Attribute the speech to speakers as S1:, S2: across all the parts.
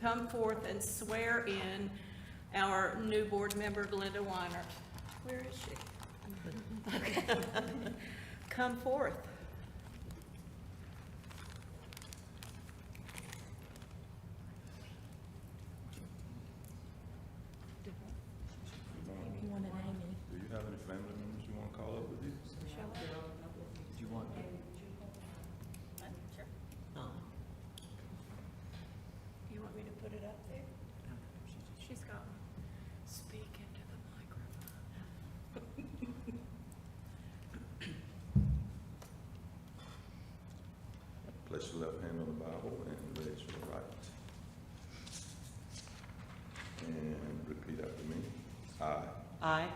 S1: come forth and swear in our new board member, Glenda Weiner. Where is she? Okay. Come forth.
S2: You wanted Amy.
S3: Do you have any family members you want to call up with you?
S4: Do you want me? No.
S1: You want me to put it up there? She's got one. Speak into the microphone.
S3: Place your left hand on the Bible and raise your right. And repeat after me. I
S4: I,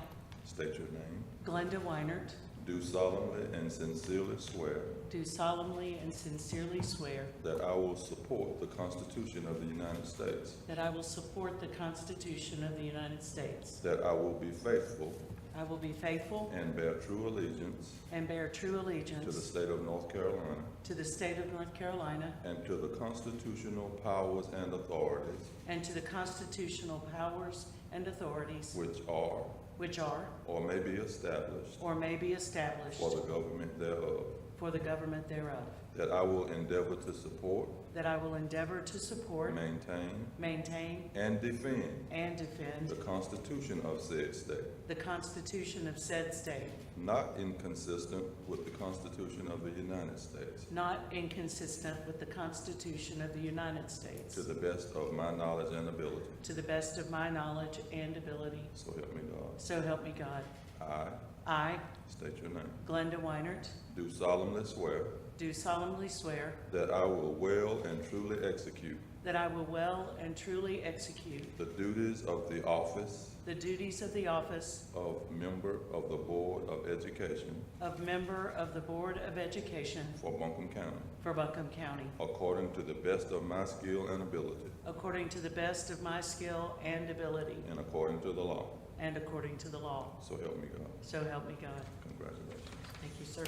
S3: state your name.
S4: Glenda Weinert,
S3: Do solemnly and sincerely swear
S4: do solemnly and sincerely swear
S3: that I will support the Constitution of the United States,
S4: that I will support the Constitution of the United States.
S3: that I will be faithful
S4: I will be faithful
S3: and bear true allegiance
S4: and bear true
S3: to the
S4: allegiance
S3: state of North Carolina
S4: to the state of North Carolina
S3: and to the constitutional powers and authorities
S4: and to the constitutional powers and authorities
S3: which are
S4: which are
S3: or may be established
S4: or may be established
S3: for the government thereof,
S4: for the government thereof,
S3: that I will endeavor to support,
S4: that I will endeavor to support,
S3: maintain,
S4: maintain,
S3: and defend
S4: and defend
S3: the Constitution of said state,
S4: the Constitution of said state,
S3: not inconsistent with the Constitution of the United States,
S4: not inconsistent with the Constitution of the United States,
S3: to the best of my knowledge and ability.
S4: to the best of my knowledge and ability.
S3: So help me God.
S4: So help me God.
S3: I
S4: I,
S3: state your name.
S4: Glenda Weinert,
S3: Do solemnly swear
S4: do solemnly swear
S3: that I will well and truly execute
S4: that I will well and truly execute
S3: the duties of the office
S4: the duties of the office
S3: of member of the Board of Education
S4: of member of the Board of Education
S3: for Buncombe County,
S4: for Buncombe County,
S3: according to the best of my skill and ability,
S4: according to the best of my skill and ability,
S3: and according to the law.
S4: and according to the law.
S3: So help me God.
S4: So help me God.
S3: Congratulations.
S4: Thank you, sir.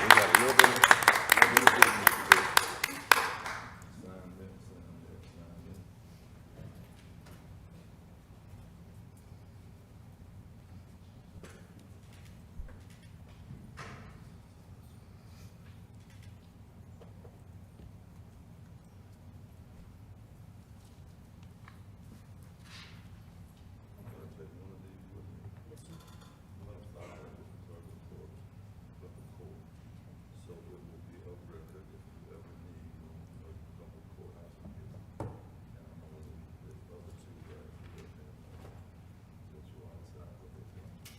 S3: We got a little bit, little bit of business to do. So it will be up record if you ever need, a couple courthouse appeals. And I know the other two, right, you live in, that you are outside of the county.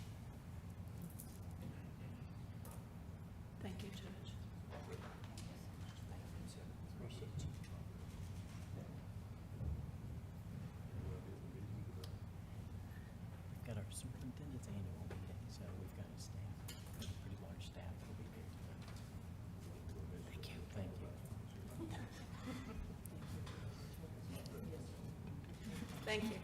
S1: Thank you, Judge.
S5: Got our superintendent's annual meeting, so we've got a staff, a pretty large staff that'll be here. Thank you. Thank you.
S1: Thank you.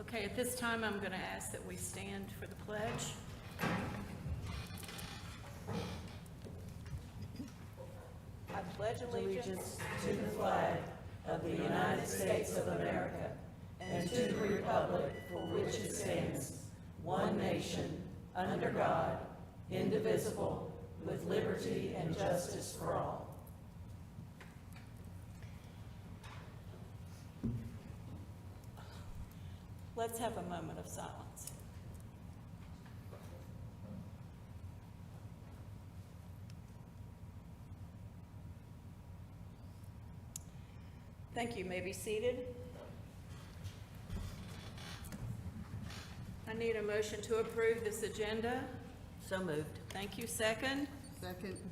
S1: Okay, at this time, I'm going to ask that we stand for the pledge. I pledge allegiance Let's have a moment of silence. Thank you. May be seated. I need a motion to approve this agenda.
S2: So moved.
S1: Thank you. Second?
S2: Second.